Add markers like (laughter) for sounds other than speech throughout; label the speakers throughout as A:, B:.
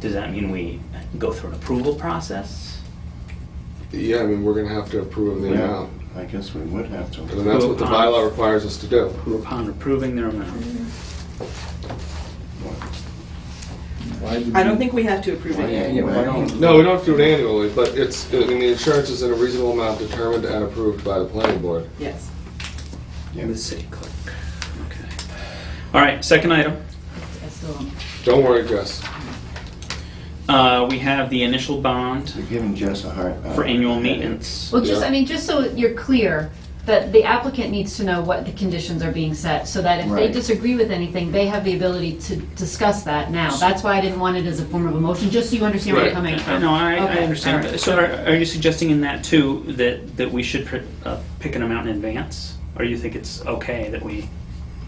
A: Does that mean we go through an approval process?
B: Yeah, I mean, we're gonna have to approve the
C: Yeah,
B: amount,
C: I guess we would have to.
B: and that's what the bylaw requires us to do.
A: Who upon approving their
D: Mm-hmm.
A: amount?
E: Why would
F: I
E: we-
F: don't think we have to approve it yet.
C: Yeah, why don't-
B: No, we don't have to do it annually, but it's, I mean, the insurance is in a reasonable amount determined and approved by the planning board.
F: Yes.
C: Yeah.
A: And the city clerk. Okay. All right, second item.
F: I still don't-
B: Don't worry, Jess.
A: Uh, We have the initial bond
C: You're giving Jess a hard.
A: for annual maintenance.
D: Well, just,
B: Yeah.
D: I mean, just so you're clear, that the applicant needs to know what the conditions are being set, so that if they
C: Right.
D: disagree with anything, they have the ability to discuss that now. That's why I didn't want it as a form of a motion, just so you understand where
B: Right.
D: I'm coming
A: Uh,
D: from.
A: No, I, I
D: Okay, all
A: understand.
D: right.
A: So are, are you suggesting in that too, that, that we should pr- uh, pick an amount in advance? Or you think it's okay that we?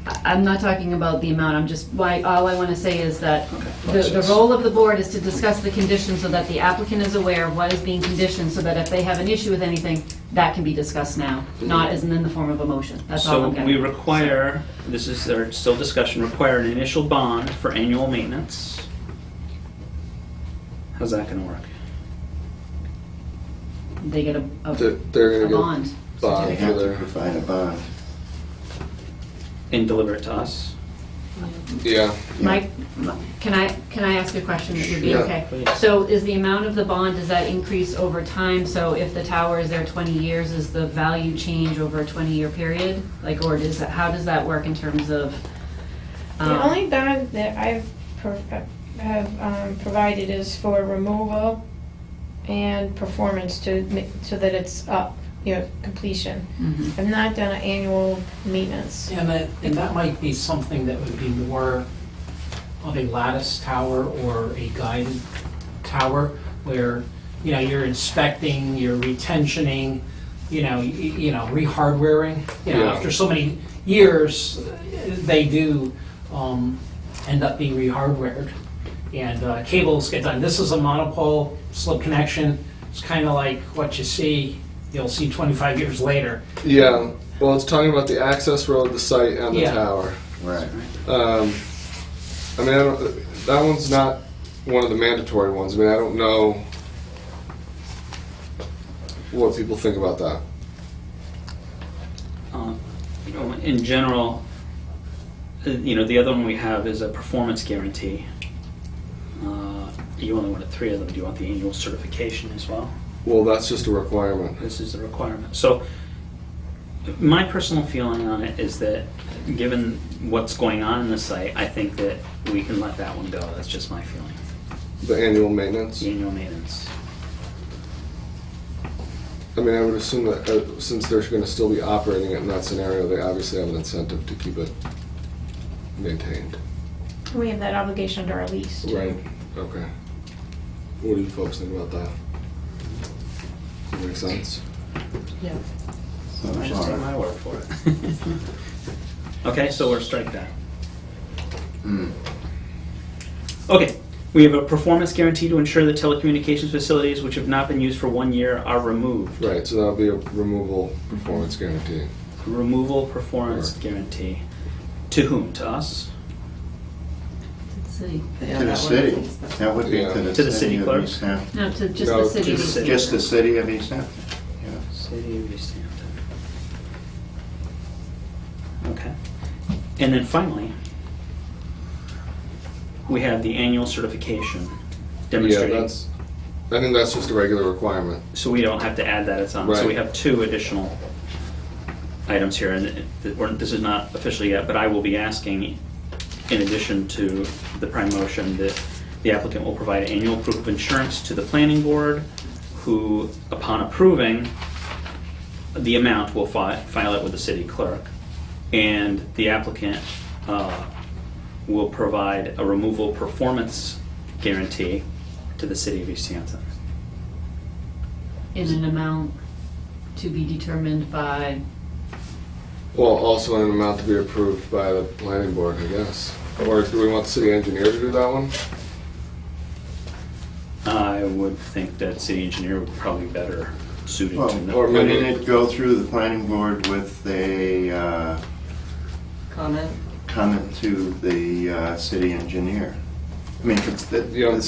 D: I- I'm not talking about the amount, I'm just, why, all I want to say is that the, the
C: Process.
D: role of the board is to discuss the conditions so that the applicant is aware of what is being conditioned, so that if they have an issue with anything, that can be discussed now, not as in the form of a motion. That's all
A: So
D: I'm getting.
A: we require, this is, our still discussion, require an initial bond for annual maintenance. How's that gonna work?
D: They get a, a
B: They're- they're
D: a
B: gonna get-
D: bond.
B: Bond
C: They
B: for
C: have to
B: their,
C: provide a bond.
A: And deliver it to us?
B: yeah,
C: Yeah.
D: Mike, m- can I, can I ask a question that would be
B: Sure.
D: okay?
A: Yeah, please.
D: So is the amount of the bond, does that increase over time? So if the tower is there 20 years, is the value change over a 20-year period? Like, or does, that- how does that work in terms of? um,
G: The only bond that I've pro- have um, provided is for removal and performance to, ma- so that it's up, you know, completion.
D: only.
G: I've not done an annual maintenance.
H: And that, and that might be something that would be more of a lattice tower or a guided tower where, you know, you're inspecting, you're retentioning, you know, y- you know, re-hardwaring. You know,
B: Yeah.
H: after so many years, they do um, end up being re-hardwared. And uh, cables get done. This is a monopole slip connection. It's kind of like what you see, you'll see 25 years later.
B: yeah. Well, it's talking about the access road, the site, and the
H: Yeah.
B: tower.
C: Right.
B: Um, I mean, I don't, that one's not one of the mandatory ones. I mean, I don't know what people think about that.
A: Um, you know, in general, uh, you know, the other one we have is a performance guarantee. Uh, You only wanted three of them. Do you want the annual certification as well?
B: Well, that's just a requirement.
A: This is the requirement. So my personal feeling on it is that, given what's going on in the site, I think that we can let that one go. That's just my feeling.
B: The annual maintenance.
A: The Annual maintenance.
B: I mean, I would assume that uh, since they're going to still be operating it in that scenario, they obviously have an incentive to keep it maintained.
G: We have that obligation under our lease. too.
B: Right. Okay. What do you folks think about that? Does that make sense?
C: Well, all right.
A: word for it. (laughs) Okay, so we're strike that.
B: Hmm.
C: Mm.
A: Okay, we have a performance guarantee to ensure that telecommunications facilities which have not been used for one year are removed.
B: Right. So that'll be a removal performance guarantee.
A: Removal performance
B: Right.
A: guarantee. To whom? To us?
D: Let's see.
F: Yeah,
C: To the
F: that one
C: city.
F: is-
C: That would be
B: Yeah.
C: to the.
A: To the city
C: of
A: clerk?
C: East Hampton.
D: No, to just
B: No,
D: the city.
A: just the
C: Just the city of East Hampton. Yeah.
A: City of East Hampton. Okay. And then finally, we have the annual certification
B: Yeah,
A: demonstrating.
B: that's. I think that's just a regular requirement.
A: So we don't have to add that, it's on. So
B: Right.
A: we have two additional items here, and it- it- we're- this is not officially yet, but I will be asking, in addition to the prime motion, that the applicant will provide annual proof of insurance to the planning board, who, upon approving the amount, will fi- file it with the city clerk. And the applicant uh, will provide a removal performance guarantee to the city of East Hampton.
D: In an amount to be determined by,
B: Well, also an amount to be approved by the planning board, I guess. Or do we want the city engineer to do that one?
A: I would think that city engineer would probably be better suited
C: Well,
A: to
B: or
A: know.
B: maybe-
C: wouldn't it go through the planning board with a uh,
F: Comment?
C: comment to the uh, city engineer? I mean, it's the,
B: Yeah.
C: the